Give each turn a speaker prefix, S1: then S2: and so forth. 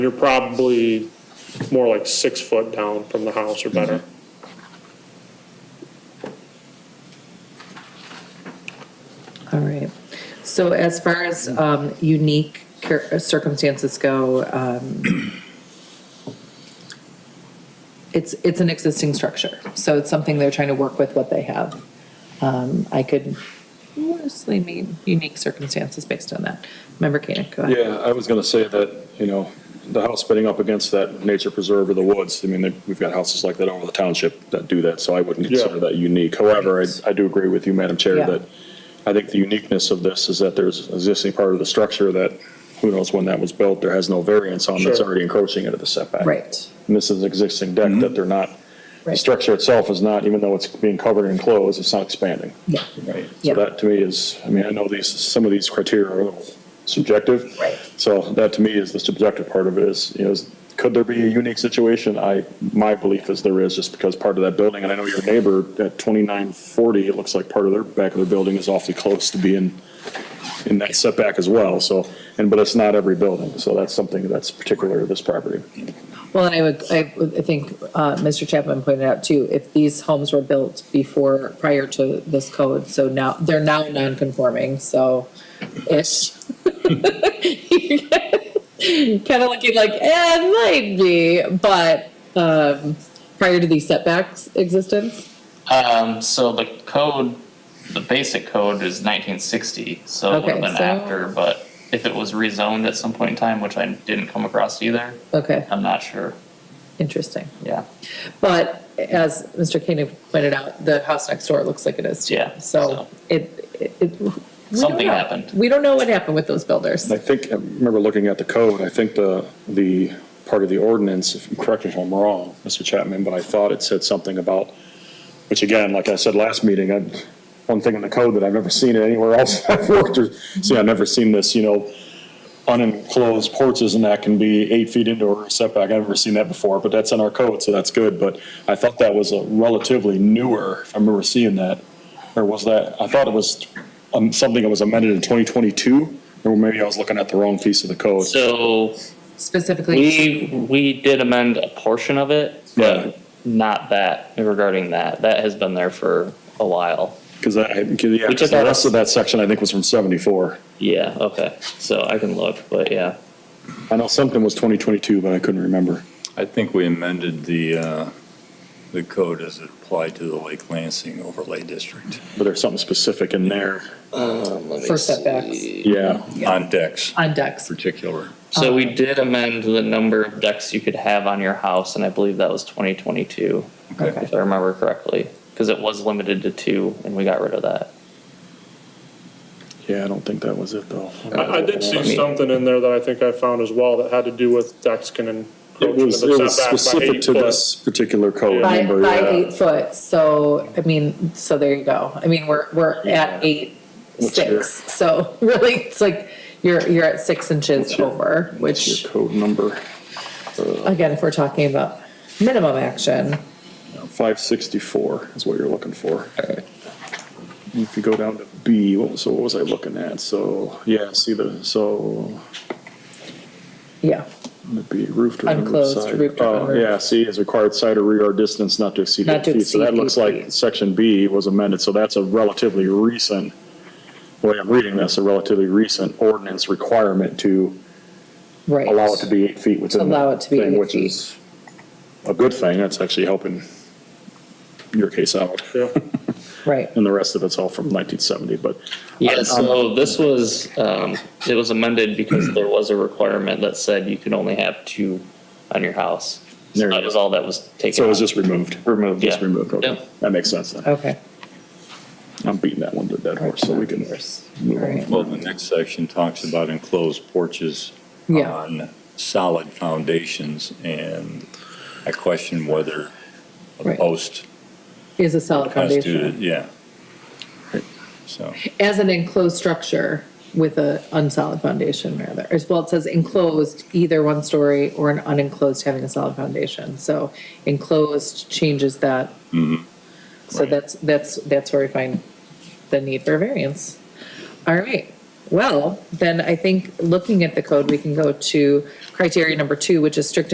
S1: You're probably more like six foot down from the house or
S2: Mhm.
S1: better.
S3: All right. So as far as um, unique cir- circumstances go, um, it's, it's an existing structure. So it's something they're trying to work with what they have. Um, I could mostly mean unique circumstances based on that. Member Koenig, go ahead.
S2: Yeah, I was going to say that, you know, the house spinning up against that nature preserve or the woods, I mean, they- we've got houses like that over the township that do that, so I wouldn't consider that unique. However, I- I do agree with you, Madam Chair,
S3: Yeah.
S2: that I think the uniqueness of this is that there's an existing part of the structure that, who knows when that was built, there has no variance on, that's
S1: Sure.
S2: already encroaching into the setback.
S3: Right.
S2: And this is an existing deck that they're not, the
S3: Right.
S2: structure itself is not, even though it's being covered and enclosed, it's not expanding.
S3: Yeah.
S2: Right.
S3: Yeah.
S2: So that to me is, I mean, I know these, some of these criteria are a little subjective.
S3: Right.
S2: So that to me is the subjective part of it is, you know, is- could there be a unique situation? I, my belief is there is just because part of that building, and I know your neighbor at 2940, it looks like part of their, back of their building is awfully close to being in that setback as well, so, and, but it's not every building, so that's something that's particular to this property.
S3: Well, and I would, I would- I think uh, Mr. Chapman pointed out too, if these homes were built before, prior to this code, so now, they're now non-conforming, so ish. Kind of looking like, eh, it might be, but um, prior to these setbacks existence,
S4: Um, so the code, the basic code is nineteen sixty, so it would
S3: Okay,
S4: have been
S3: so-
S4: after, but if it was rezoned at some point in time, which I didn't come across either,
S3: okay,
S4: I'm not sure,
S3: interesting.
S4: yeah.
S3: But as Mr. Koenig pointed out, the house next door looks like it is too.
S4: Yeah,
S3: So
S4: so-
S3: it, it- it. we don't
S4: Something
S3: know.
S4: happened.
S3: We don't know what happened with those builders.
S2: I think, I remember looking at the code, I think the, the part of the ordinance, if- correct me if I'm wrong, Mr. Chapman, but I thought it said something about, which again, like I said last meeting, I, one thing in the code that I've never seen it anywhere else I've worked or, see, I've never seen this, you know, unenclosed porches and that can be eight feet into a setback. I've never seen that before, but that's in our code, so that's good. But I thought that was a relatively newer, if I remember seeing that, or was that, I thought it was um, something that was amended in 2022, or maybe I was looking at the wrong piece of the code.
S4: So
S3: Specifically.
S4: we, we did amend a portion of it,
S2: Right.
S4: but not that, regarding that, that has been there for a while.
S2: Because I, 'cause, yeah,
S4: We took
S2: 'cause the
S4: out-
S2: rest of that section, I think, was from 74.
S4: Yeah, okay, so I can look, but yeah.
S2: I know something was 2022, but I couldn't remember.
S5: I think we amended the, uh, the code as it applied to the Lake Lansing overlay district
S2: But there's something specific in there.
S3: for setbacks
S2: Yeah.
S5: on decks in
S3: on decks.
S5: particular.
S4: So we did amend the number of decks you could have on your house, and I believe that was twenty twenty-two,
S5: Okay.
S4: if I remember correctly, because it was limited to two, and we got rid of that.
S2: Yeah, I don't think that was it, though.
S1: I, I did see something in there that I think I found as well that had to do with decks can encroach
S2: It
S1: into the
S2: was, it was
S1: setback by
S2: specific
S1: eight
S2: to
S1: foot.
S2: this particular code. I
S3: By,
S2: remember, uh,
S3: by
S2: yeah.
S3: eight foot, so, I mean, so there you go. I mean, we're, we're at eight,
S2: What's your-
S3: six, so really, it's like, you're, you're at six inches over,
S2: What's
S3: which,
S2: Your code number,
S3: again, if we're talking about minimum action,
S2: 564 is what you're looking for. If you go down to B, what was, so what was I looking at? So, yeah, see the, so,
S3: yeah,
S2: it'd be roofed or under
S3: Unclosed,
S2: side.
S3: roofed or
S2: Oh,
S3: under.
S2: Yeah, C is required side or rear yard distance not to exceed
S3: Not
S2: eight
S3: to
S2: feet. So that
S3: exceed
S2: looks
S3: eight
S2: like
S3: feet.
S2: section B was amended, so that's a relatively recent, the way I'm reading this, a relatively recent ordinance requirement to
S3: right.
S2: allow it to be eight feet within
S3: Allow
S2: the
S3: it to be
S2: thing,
S3: eight
S2: which
S3: feet.
S2: is a good thing. That's actually helping your case out.
S1: Yeah.
S3: Right,
S2: And the rest of it's all from 1970, but
S4: Yeah, Um, so this was, um, it was amended because there was a requirement that said you could only have two on your house. So
S2: There you
S4: that
S2: go.
S4: was all that was taken.
S2: so it was
S4: out.
S2: just removed. Removed. Just
S4: Yeah.
S2: removed. Okay.
S4: Yeah.
S2: That makes sense then.
S3: okay.
S2: I'm beating that one to a dead horse, so we can.
S3: All right.
S5: Well, the next section talks about enclosed porches
S3: Yeah.
S5: on solid foundations, and I question whether a
S3: Right.
S5: post
S3: Is a solid
S5: constituted,
S3: foundation,
S5: yeah. So,
S3: as an enclosed structure with a unsolid foundation, rather, as well, it says enclosed, either one story or an unenclosed having a solid foundation, so enclosed changes that. So
S5: Right.
S3: that's, that's, that's where we find the need for a variance. All right, well, then I think looking at the code, we can go to criteria number two, which is strict